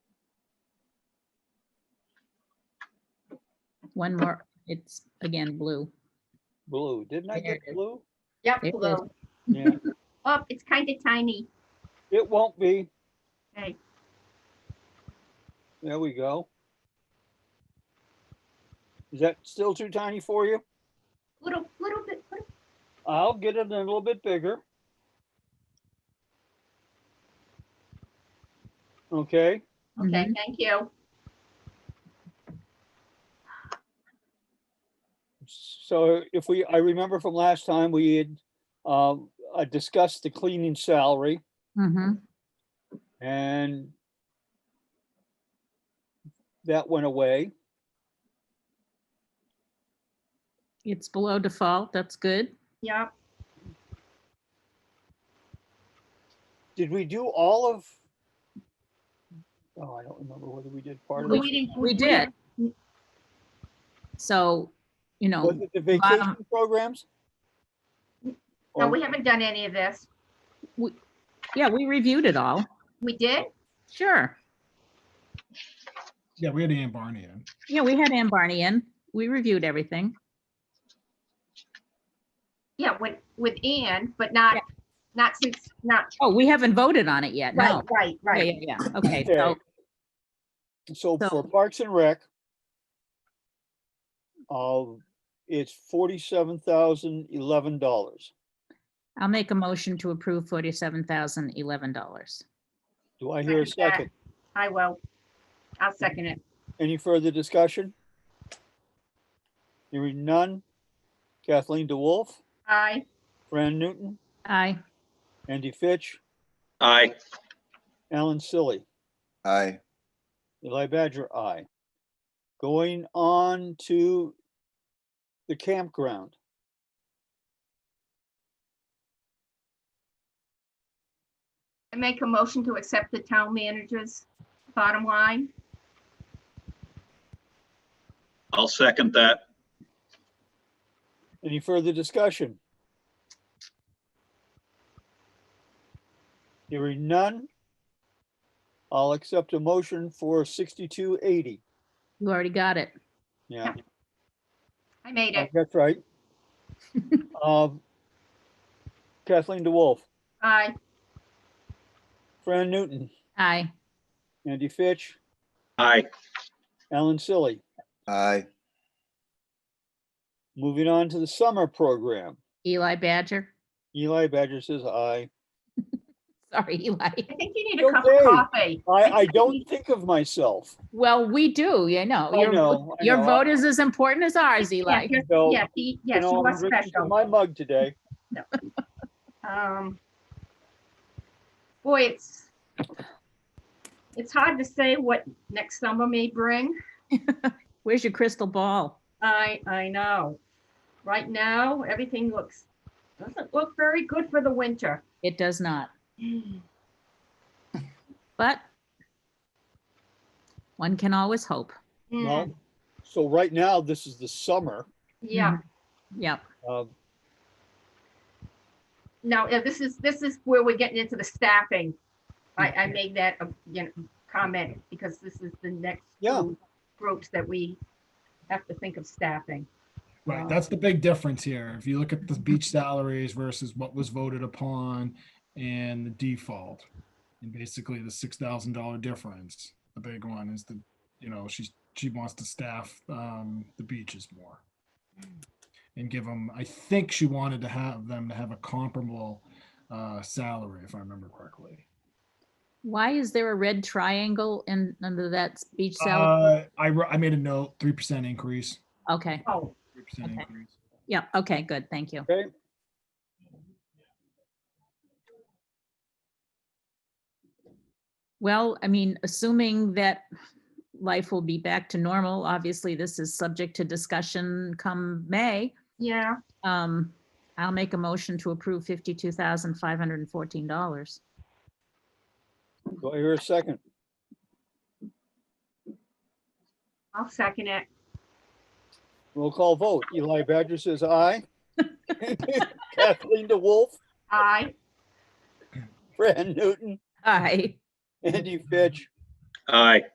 one more, it's again blue. Blue, didn't I There get it is. blue? There it Yep, is. blue. Yeah, Oh, it's kind of tiny. it won't be. Okay. There we go. Is that still too tiny for you? Little, little bit, little- I'll get it a little bit bigger. Okay, okay, Mhm. thank you. so if we, I remember from last time, we had, um, I discussed the cleaning salary. Mm-hmm. Mhm. And that went away. It's below default. That's good. Yep, Did we do all of? Oh, I don't remember whether we did part of But it. we didn't- We did. So, you Was know, it the vacation programs? no, Or- we haven't done any of this. yeah, we reviewed it all. We did? Sure. Yeah, we had Ann Barney in. Yeah, we had Ann Barney in. We reviewed everything. Yeah, with, with Ann, but not, not since, not, Oh, we haven't voted on it yet. right, No. right, Yeah, right. yeah, yeah. Okay, so, So So- for Parks and Rec, uh, it's forty-seven thousand eleven dollars. I'll make a motion to approve forty-seven thousand eleven dollars. Do I hear a Second that. second? I will. I'll second it. Any further discussion? Hearing none. Kathleen DeWolf, Aye, Fran Newton, Aye. Andy Fitch, Aye. Alan Silly. Aye. Eli Badger, aye. Going on to the campground. I make a motion to accept the town manager's bottom line. I'll second that. Any further discussion? Hearing none. I'll accept a motion for sixty-two eighty. You already got it. Yeah, I made it. that's right. Um, Kathleen DeWolf, Aye, Fran Newton, Aye. Andy Fitch, Aye. Alan Silly. Aye. Moving on to the summer program. Eli Badger. Eli Badger says aye. Sorry, Eli. I think you need a cup of Okay. coffee. I, I think you don't need- think of myself. Well, we do, you know. I Your know, vo- I Your know. vote is as important as ours, Yeah, Eli. you're- So, yeah, he- you yes, know, you I'm are drinking from special. My mug today. Um, boy, it's, it's hard to say what next summer may bring. Where's your crystal ball? I, I know. Right now, everything looks, doesn't look very good for the winter. It does not, but one can always hope. Mm, Well, so right now, this is the summer. Yeah, mm. Mm-hmm. Yep. Uh, no, yeah, uh, this is, this is where we're getting into the staffing. I, I made that, uh, you know, comment because this is the next Yeah. two groups that we have to think of staffing. Right, Wow. that's the big difference here. If you look at the beach salaries versus what was voted upon and the default. And basically the six thousand dollar difference, the big one is the, you know, she's, she wants to staff, um, the beaches more. And give them, I think she wanted to have them to have a comparable, uh, salary, if I remember correctly. Why is there a red triangle in, under that beach salad? Uh, I, wr- I made a note, three percent increase, Okay, Oh, three percent Okay. increase. yeah, okay, good, thank you. Okay. Well, I mean, assuming that life will be back to normal, obviously this is subject to discussion come May. yeah, Um, I'll make a motion to approve fifty-two thousand five hundred and fourteen dollars. Do I hear a second? I'll second it. Roll call vote. Eli Badger says aye. Kathleen DeWolf, Aye, Fran Newton, Aye. Andy Fitch, Aye.